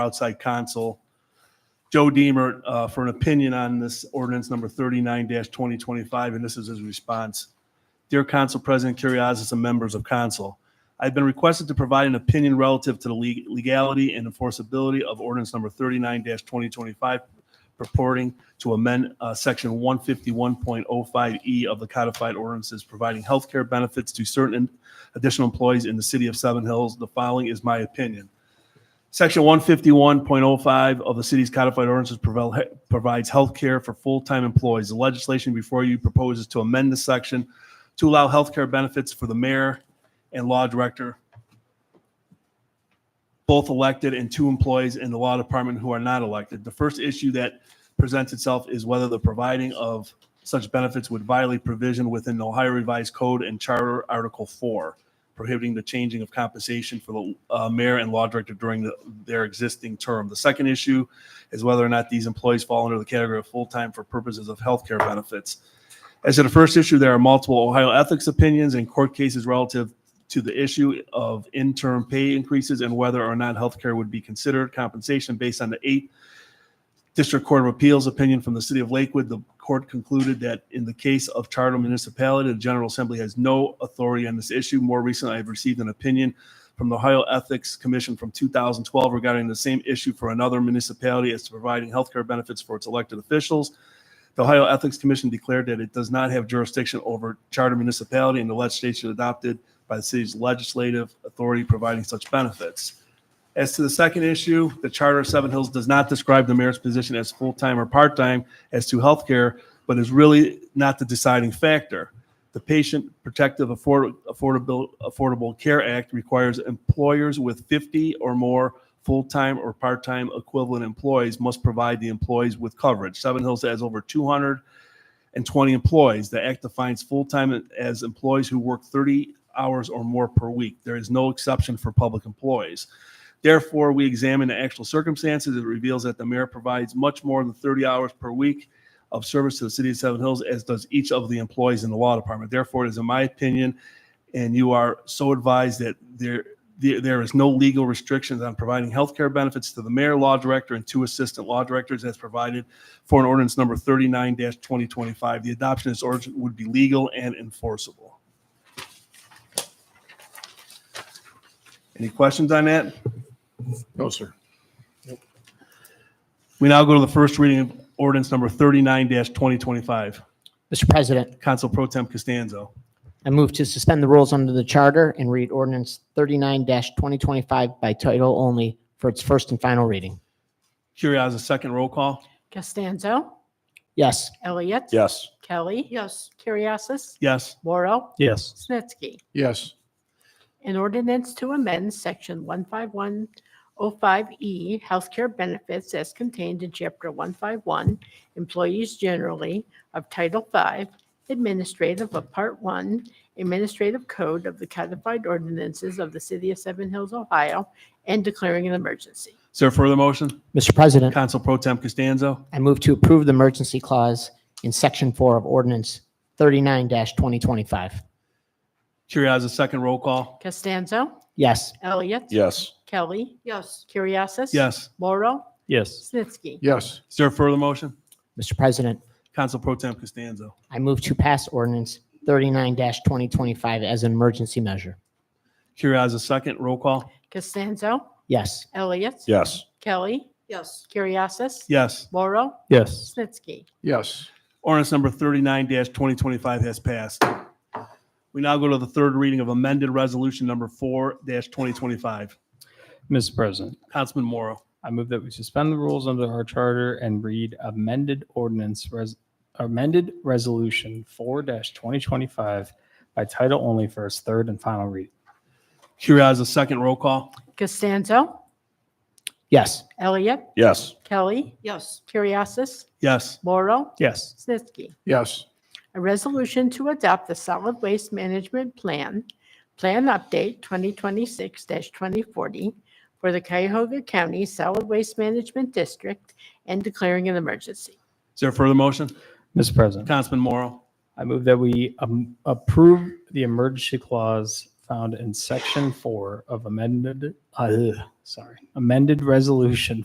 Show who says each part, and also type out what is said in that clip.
Speaker 1: outside counsel, Joe Deemer, uh, for an opinion on this ordinance number thirty-nine twenty twenty-five, and this is his response. Dear Council President Curriasis and members of council, I've been requested to provide an opinion relative to the leg- legality and enforceability of ordinance number thirty-nine twenty twenty-five purporting to amend uh, section 151.05E E of the codified ordinances providing healthcare benefits to certain additional employees in the city of Seven Hills. The following is my opinion. Section 151.05 of the city's codified ordinances provel- provides healthcare for full-time employees. The legislation before you proposes to amend the section to allow healthcare benefits for the mayor and law director, both elected, and two employees in the law department who are not elected. The first issue that presents itself is whether the providing of such benefits would violate provision within the Ohio Revised Code and Charter Article 4, prohibiting the changing of compensation for the uh, mayor and law director during the- their existing term. The second issue is whether or not these employees fall under the category of full-time for purposes of healthcare benefits. As to the first issue, there are multiple Ohio ethics opinions and court cases relative to the issue of interim pay increases and whether or not healthcare would be considered compensation based on the eight District Court of Appeals opinion from the city of Lakewood, the court concluded that in the case of charter municipality, the General Assembly has no authority on this issue. More recently, I have received an opinion from the Ohio Ethics Commission from 2012 regarding the same issue for another municipality as to providing healthcare benefits for its elected officials. The Ohio Ethics Commission declared that it does not have jurisdiction over charter municipality and the legislation adopted by the city's legislative authority providing such benefits. As to the second issue, the Charter of Seven Hills does not describe the mayor's position as full-time or part-time as to health care, but is really not the deciding factor. The Patient Protective Afford- Affordable, Affordable Care Act requires employers with 50 or more full-time or part-time equivalent employees must provide the employees with coverage. Seven Hills has over 200 and 20 employees. The act defines full-time as employees who work 30 hours or more per week. There is no exception for public employees. Therefore, we examine the actual circumstances. It reveals that the mayor provides much more than 30 hours per week of service to the city of Seven Hills, as does each of the employees in the law department. Therefore, it is in my opinion, and you are so advised that there, there there is no legal restrictions on providing healthcare benefits to the mayor, law director, and two assistant law directors as provided for an ordinance number 39-2025. The adoption of this ordinance would be legal and enforceable. Any questions on that?
Speaker 2: No, sir.
Speaker 1: We now go to the first reading of ordinance number thirty-nine twenty twenty-five.
Speaker 3: Mr. President,
Speaker 1: Council Pro Tem Costanzo.
Speaker 3: I move to suspend the rules under the charter and read ordinance 39-2025 by title only for its first and final reading.
Speaker 1: Curriass, a second roll call?
Speaker 4: Costanzo.
Speaker 3: Yes.
Speaker 4: Elliott.
Speaker 2: Yes.
Speaker 4: Kelly. Yes. Curriasis.
Speaker 1: Yes.
Speaker 4: Morrow.
Speaker 2: Yes.
Speaker 4: Snetsky.
Speaker 2: Yes.
Speaker 4: An ordinance to amend section 15105E E, healthcare benefits as contained in chapter 151, employees generally of Title V, administrative of Part 1, administrative code of the codified ordinances of the city of Seven Hills, Ohio, and declaring an emergency.
Speaker 1: Is there a further motion?
Speaker 3: Mr. President,
Speaker 1: Council Pro Tem Costanzo.
Speaker 3: I move to approve the emergency clause in section four of ordinance 39-2025.
Speaker 1: Curriass, a second roll call?
Speaker 4: Costanzo.
Speaker 3: Yes.
Speaker 4: Elliott.
Speaker 2: Yes.
Speaker 4: Kelly. Yes. Curriasis.
Speaker 1: Yes.
Speaker 4: Morrow.
Speaker 2: Yes.
Speaker 4: Snitsky.
Speaker 2: Yes.
Speaker 1: Is there a further motion?
Speaker 3: Mr. President,
Speaker 1: Council Pro Tem Costanzo.
Speaker 3: I move to pass ordinance 39-2025 as an emergency measure.
Speaker 1: Curriass, a second roll call?
Speaker 4: Costanzo.
Speaker 3: Yes.
Speaker 4: Elliott.
Speaker 2: Yes.
Speaker 4: Kelly. Yes. Curriasis.
Speaker 1: Yes.
Speaker 4: Morrow.
Speaker 2: Yes.
Speaker 4: Snitsky.
Speaker 2: Yes.
Speaker 1: Ordinance number thirty-nine twenty twenty-five has passed. We now go to the third reading of amended resolution number four twenty twenty-five.
Speaker 5: Mr. President,
Speaker 1: Councilman Morrow.
Speaker 5: I move that we suspend the rules under our charter and read amended ordinance, res- amended resolution four twenty twenty-five by title only for its third and final reading.
Speaker 1: Curriass, a second roll call?
Speaker 4: Costanzo.
Speaker 3: Yes.
Speaker 4: Elliott.
Speaker 2: Yes.
Speaker 4: Kelly. Yes. Curriasis.
Speaker 1: Yes.
Speaker 4: Morrow.
Speaker 5: Yes.
Speaker 4: Snitsky.
Speaker 2: Yes.
Speaker 4: A resolution to adopt the solid waste management plan, plan update 2026-2040 for the Cuyahoga County Solid Waste Management District and declaring an emergency.
Speaker 1: Is there a further motion?
Speaker 5: Mr. President,
Speaker 1: Councilman Morrow.
Speaker 5: I move that we um, approve the emergency clause found found in section four of amended, uh, sorry, amended resolution